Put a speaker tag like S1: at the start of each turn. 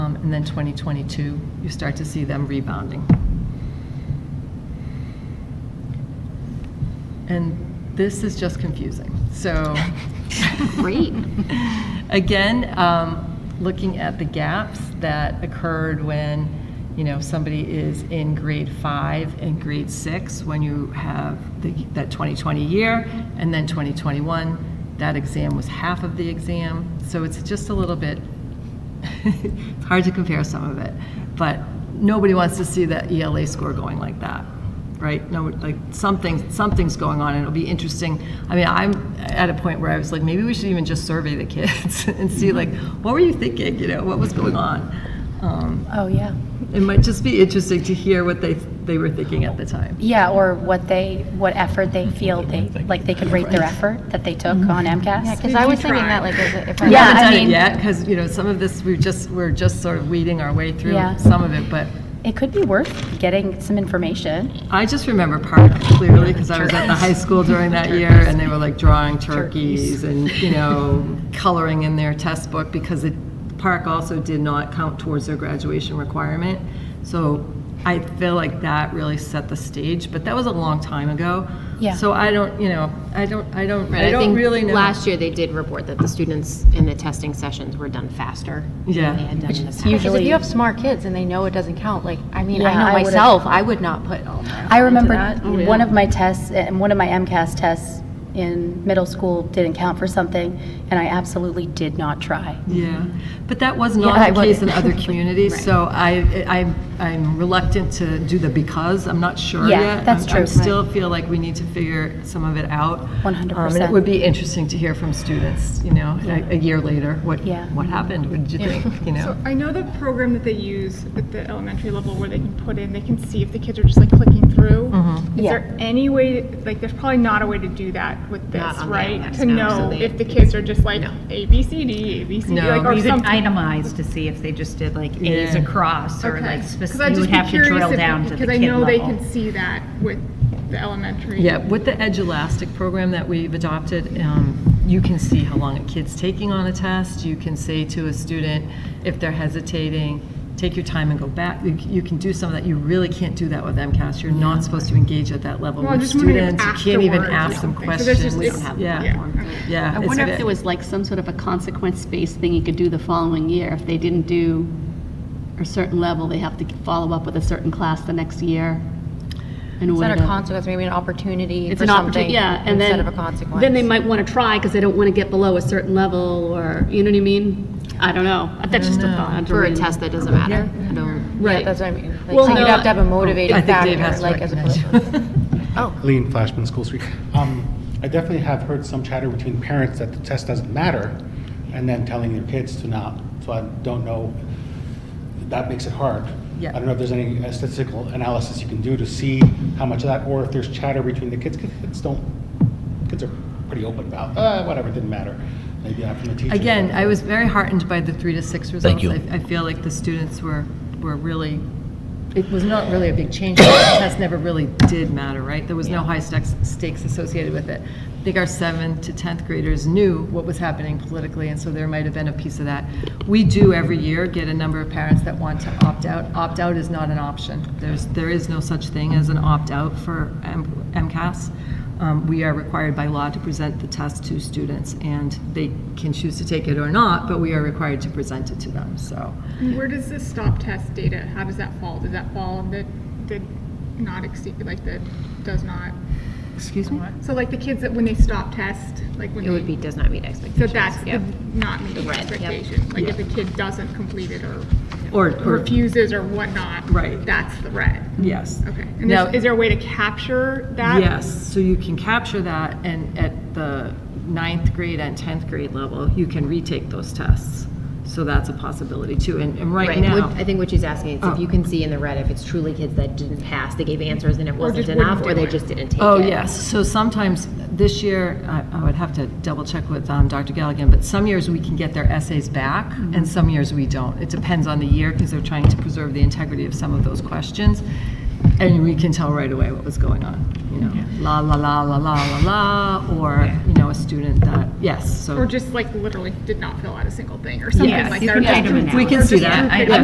S1: Um, and then 2022, you start to see them rebounding. And this is just confusing, so.
S2: Great.
S1: Again, um, looking at the gaps that occurred when, you know, somebody is in grade five and grade six, when you have the, that 2020 year, and then 2021, that exam was half of the exam. So it's just a little bit, it's hard to compare some of it, but nobody wants to see that ELA score going like that, right? No, like something, something's going on, and it'll be interesting. I mean, I'm at a point where I was like, maybe we should even just survey the kids and see like, what were you thinking? You know, what was going on? Um,
S2: Oh, yeah.
S1: it might just be interesting to hear what they they were thinking at the time.
S2: Yeah, or what they, what effort they feel they, like they could rate their effort that they took on
S3: Mm-hmm. Yeah,
S2: MCAS.
S3: because I was thinking that, like, as a- if I.
S1: We
S2: Yeah,
S1: haven't
S2: I
S1: done
S2: mean-
S1: it yet because you know some of this we just we're just sort of weeding our way through
S2: Yeah.
S1: some of it, but.
S2: It could be worth getting some information.
S1: I just remember Park clearly because I was at the high school during that year and they were like drawing turkeys and, you know, coloring in their test book because it, Park also did not count towards their graduation requirement. So I feel like that really set the stage, but that was a long time ago.
S2: Yeah.
S1: So I don't, you know, I don't, I don't,
S3: Right,
S1: I
S3: I
S1: don't
S3: think
S1: really know.
S3: last year they did report that the students in the testing sessions were done faster
S1: Yeah.
S3: than they had done in the past.
S2: usually-
S3: Because
S4: Because if you have smart kids and they know it doesn't count, like, I mean, I
S2: Yeah, I
S4: know
S2: would've-
S4: myself, I would not put all my.
S2: I remember
S1: that? Oh, yeah.
S2: one of my tests, and one of my MCAS tests in middle school didn't count for something, and I absolutely did not try.
S1: Yeah, but that was
S2: I
S1: not the
S2: would-
S1: case in other communities, so I, I, I'm reluctant to do the because, I'm not sure yet.
S2: Yeah, that's
S1: I'm- I
S2: true.
S1: still feel like we need to figure some of it out. Um, And it
S2: 100%.
S1: would be interesting to hear from students, you know, a a year later, what,
S2: Yeah.
S1: what happened, what did you think, you know?
S5: So I know the program that they use at the elementary level where they can put in, they can see if the kids are just like clicking through. Is there any way, like, there's probably not a way to do that with
S3: Not
S5: this,
S3: on the
S5: right?
S3: LMS,
S5: To
S3: no. So
S5: know
S3: they-
S5: if the kids are just like A, B, C, D, A, B, C, D,
S1: No.
S5: like, or
S6: You could
S5: something.
S6: itemize to see if they just did like A's
S1: Yeah.
S6: across or
S5: Okay.
S6: like
S5: 'Cause
S6: specific,
S5: I'd
S6: you would
S5: just be
S6: have to
S5: curious
S6: drill
S5: if-
S6: down to the kid
S5: Because I know they
S6: level.
S5: can see that with the elementary.
S1: Yeah, with the Edge Elastic program that we've adopted, um, you can see how long a kid's taking on a test. You can say to a student, if they're hesitating, take your time and go back. You c- You can do some of that. You really can't do that with MCAS. You're not supposed to engage at that level
S5: Well, I'm
S1: with
S5: just wondering if
S1: students. You can't even
S5: afterwards or
S1: ask them
S5: something. So there's
S1: questions.
S5: just-
S3: We don't have
S1: Yeah.
S3: that platform.
S1: Yeah.
S7: I
S1: it's
S7: wonder
S1: ve-
S7: if there was like some sort of a consequence-based thing you could do the following year. If they didn't do a certain level, they have to follow up with a certain class the next year in
S4: It's not
S7: order
S4: a
S7: to.
S4: consequence, maybe an opportunity
S7: It's
S4: for
S7: an
S4: something
S7: opportunity, yeah, and then.
S4: instead of a consequence.
S7: Then they might want to try because they don't want to get below a certain level or, you know what I mean? I don't know. That's just a thought.
S3: For a test that doesn't matter. I don't-
S4: Yeah, that's what I mean. Like,
S7: Well,
S4: so you'd
S7: no,
S4: have to have a motivating
S1: I think Dave
S4: factor,
S1: has to
S4: like, as
S1: recognize
S4: opposed.
S1: you.
S8: Lean Flashman, School Street. Um, I definitely have heard some chatter between parents that the test doesn't matter, and then telling their kids to not. So I don't know. That makes it hard.
S1: Yeah.
S8: I don't know if there's any uh, statistical analysis you can do to see how much of that, or if there's chatter between the kids. 'cause Kids don't. Kids are pretty open about. Uh, whatever, it didn't matter. Maybe not from the teacher.
S1: Again, I was very heartened by the three to six results.
S9: you.
S1: I I feel like the students were, were really, it was not really a big change. The test never really did matter, right? There was no high stakes, stakes associated with it. I think our seventh to 10th graders knew what was happening politically, and so there might have been a piece of that. We do every year get a number of parents that want to opt out. Opt out is not an option. There's, there is no such thing as an opt out for M- MCAS. Um, We are required by law to present the test to students, and they can choose to take it or not, but we are required to present it to them, so.
S5: Where does this stop test data, how does that fall? Does that fall in the, the not exceed, like, the does not?
S1: Excuse me?
S5: So like the kids that, when they stop test, like when
S3: It would be,
S5: they,
S3: does not meet
S5: so
S3: expectations.
S5: that's the
S3: Yep.
S5: not meeting
S3: Right, yep.
S5: expectation. Like if a kid doesn't complete it or
S1: Or, or,
S5: refuses or whatnot.
S1: Right.
S5: That's the red.
S1: yes.
S5: Okay. And
S1: Now-
S5: there's- is there a way to capture that?
S1: Yes, so you can capture that, and at the ninth grade and 10th grade level, you can retake those tests. So that's a possibility too, and, and right
S3: Right,
S1: now.
S3: what- I think what she's asking is
S1: Oh.
S3: if you can see in the red if it's truly kids that didn't pass, they gave answers and it wasn't
S5: just wouldn't
S3: enough, or
S5: do
S3: they
S5: it.
S3: just didn't take it.
S1: Oh, yes. So sometimes, this year, I I would have to double check with um, Dr. Galligan, but some years we can get their essays back,
S6: Mm-hmm.
S1: and some years we don't. It depends on the year, because they're trying to preserve the integrity of some of those questions. And we can tell right away what was going on, you know, la, la, la, la, la, la, la, or, you know, a student that, yes, so.
S5: Or just like literally did not fill out a single thing or something
S6: Yes,
S5: like
S6: you
S5: that.
S6: can
S5: or just
S6: item it
S5: two-
S6: out.
S1: We
S5: or
S1: can
S5: just
S1: see
S5: two
S1: that.
S5: kids
S6: I-